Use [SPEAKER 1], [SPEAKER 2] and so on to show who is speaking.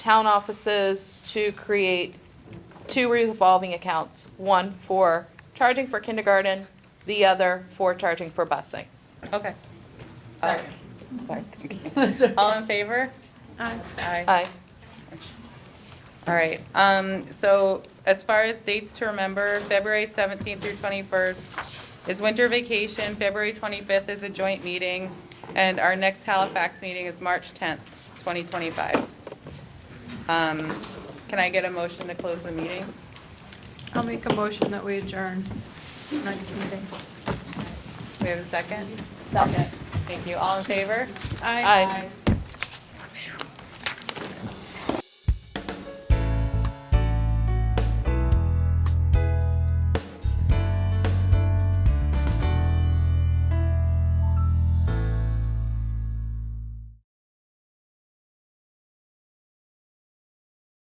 [SPEAKER 1] town offices to create two revolving accounts, one for charging for kindergarten, the other for charging for busing.
[SPEAKER 2] Okay.
[SPEAKER 1] Sorry.
[SPEAKER 2] All in favor? Aye.
[SPEAKER 1] Aye.
[SPEAKER 2] All right, um, so as far as dates to remember, February 17th through 21st is winter vacation, February 25th is a joint meeting, and our next Halifax meeting is March 10th, 2025. Um, Can I get a motion to close the meeting?
[SPEAKER 3] I'll make a motion that we adjourn tonight's meeting.
[SPEAKER 2] We have a second?
[SPEAKER 3] Second.
[SPEAKER 2] Thank you, all in favor?
[SPEAKER 1] Aye.
[SPEAKER 2] Aye.